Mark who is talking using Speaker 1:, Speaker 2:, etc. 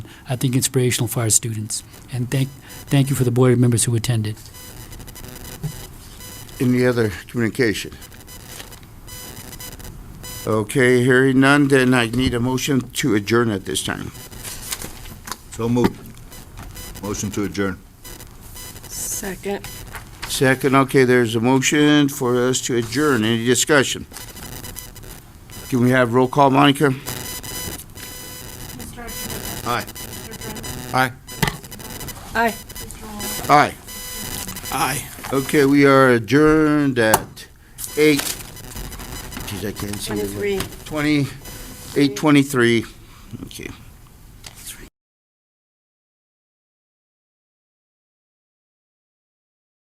Speaker 1: I think, inspirational for our students. And thank, thank you for the board members who attended.
Speaker 2: Any other communication? Okay, hearing none, then I need a motion to adjourn at this time.
Speaker 3: So moved. Motion to adjourn.
Speaker 4: Second.
Speaker 2: Second, okay, there's a motion for us to adjourn. Any discussion? Can we have roll call, Monica?
Speaker 3: Aye.
Speaker 4: Aye.
Speaker 2: Aye. Aye. Okay, we are adjourned at eight. Geez, I can't see. the-
Speaker 4: 23.
Speaker 2: Twenty, eight twenty-three. Okay.